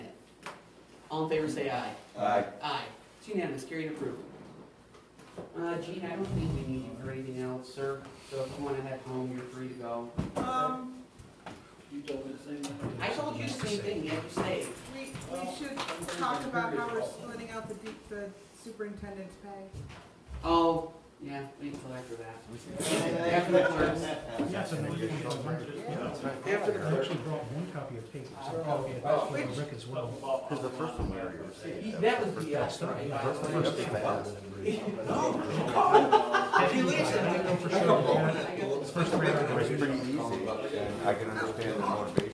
All in favor, say aye. Aye. Aye. It's unanimous, carried and approved. Uh, Gene, I don't think we need you for anything else, sir, so if you wanna head home, you're free to go. Um, You told me the same thing. I told you the same thing, you have to say. we, we should talk about how we're splitting out the, de- the superintendent's pay. Oh, yeah, wait until after that. After the clerks. Yes, I know you can go rent it, yeah. After the I actually brought one copy of paper, so a copy of Oh, actually which- Rick as well. Because the first one we already received. That was the, uh, That's not- right, that's the right. first thing. If you leave it, I know for I sure. got First three. It's pretty easy. I can understand the motivation.